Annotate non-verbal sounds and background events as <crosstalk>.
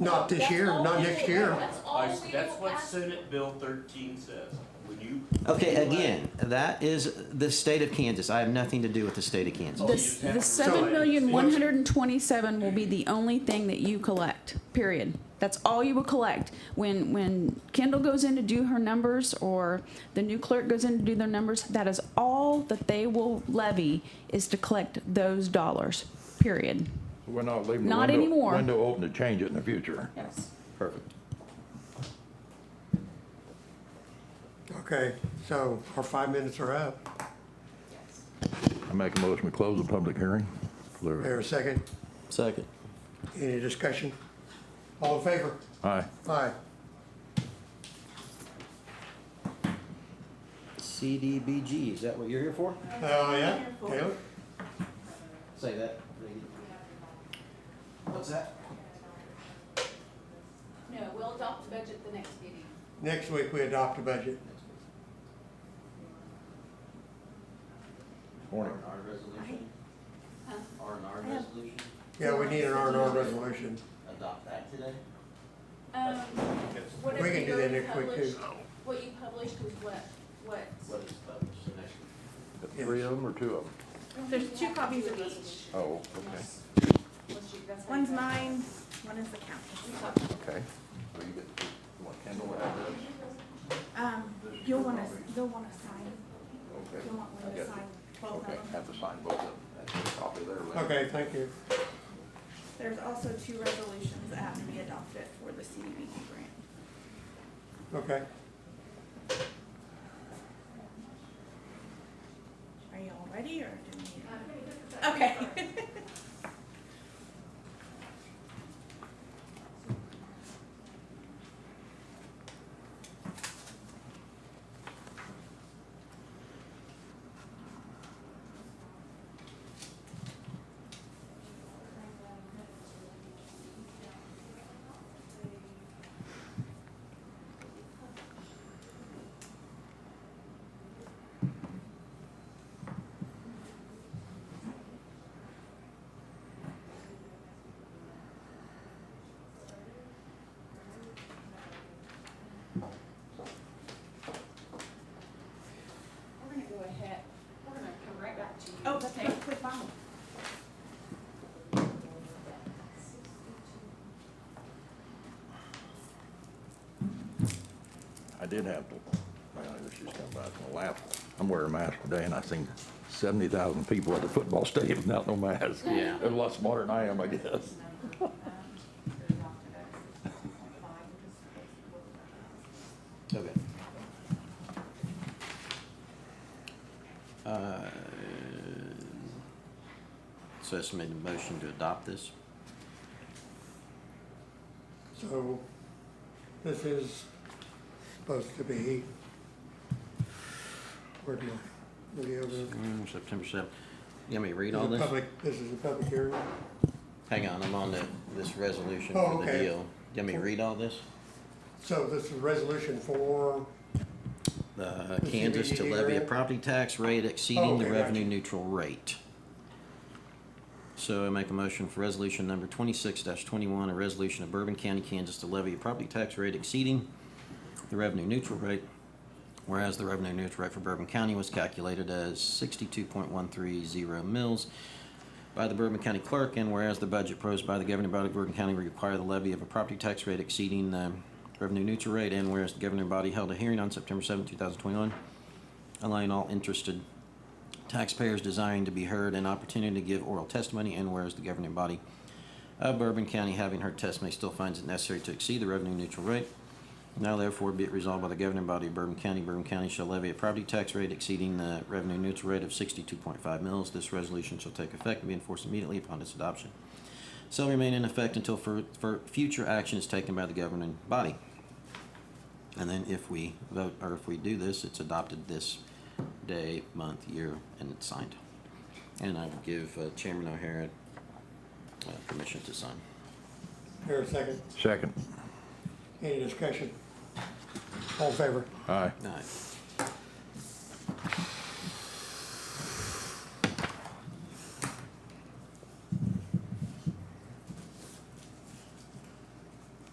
Not this That's year, all not we next do. year. That's all I- we will Oh, That's what ask. Senate Bill thirteen says. When you. Okay, when you again, that is the state of Kansas. I have nothing to do with the state of Kansas. Oh, you The, just have the to seven sign it. million, one hundred and twenty-seven will be the only thing that you collect, period. That's all you will collect. When, when Kendall goes in to do her numbers, or the new clerk goes in to do their numbers, that is all that they will levy is to collect those dollars, period. We're not leaving the Not window- anymore. Window open to change it in the future. Yes. Perfect. Okay, so our five minutes are up. I make a motion, we close the public hearing. There a second? Second. Any discussion? All in favor? Aye. Aye. CDBG, is that what you're here for? Oh, yeah? Taylor? Say that. What's that? No, we'll adopt the budget the next meeting. Next week, we adopt a budget. Morning. R resolution? Huh? R and R resolution? Yeah, we need an R and R resolution. Adopt that today? Um, whatever We can do that you next week, too. published- What you published was what, what? What is published the next week? Three of them or two of them? There's two copies of each. Oh, Unless you- that's how you One's got it. mine, one is the county. okay. So you get, you want Kendall to have this? Um, you'll wanna, they'll wanna sign, Okay. you'll want I one to got sign you. twelve Okay, of them. have to sign both of them. That's a copy there. Lynn. Okay, thank you. There's also two resolutions that have to be adopted for the CDBG grant. Okay. Are you all ready or do we? Okay. We're gonna go ahead, we're gonna come right back to you. Oh, that's a quick file. I did have to, well, this just come back from the last one. I'm wearing a mask today and I seen seventy thousand people at the football stadium <laughs> without no mask. Yeah. They're a lot smarter than I am, I guess. um, Okay. Uh, So that's made a motion to adopt this? So this is supposed to be, where do I, video, Mm, September seventh. You want me to read all the this? public, this is a public hearing? Hang on, I'm on the, this resolution Oh, for the okay. deal. You want me to read all this? So this is resolution for, Uh, The Kansas to CBDD levy a rate? property tax rate Oh, exceeding the okay, revenue gotcha. neutral rate. So I make a motion for resolution number twenty-six twenty-one, a resolution of Bourbon County, Kansas to levy a property tax rate exceeding the revenue neutral rate. Whereas the revenue neutral rate for Bourbon County was calculated as sixty-two point one three zero mils by the Bourbon County Clerk, and whereas the budget proposed by the governing body of Bourbon County require the levy of a property tax rate exceeding the revenue neutral rate, and whereas the governing body held a hearing on September seventh, two thousand twenty-one, allowing all interested taxpayers desiring to be heard an opportunity to give oral testimony, and whereas the governing body of Bourbon County having heard testimony still finds it necessary to exceed the revenue neutral rate, now therefore be it resolved by the governing body of Bourbon County, Bourbon County shall levy a property tax rate exceeding the revenue neutral rate of sixty-two point five mils. This resolution shall take effect and be enforced immediately upon its adoption. Shall remain in effect until for, for future action is taken by the governing body. And then if we vote, or if we do this, it's adopted this day, month, year, and it's signed. And I will give uh, Chairman O'Hara uh, permission to sign. here a second, Second. any discussion? All in favor? Aye. All right.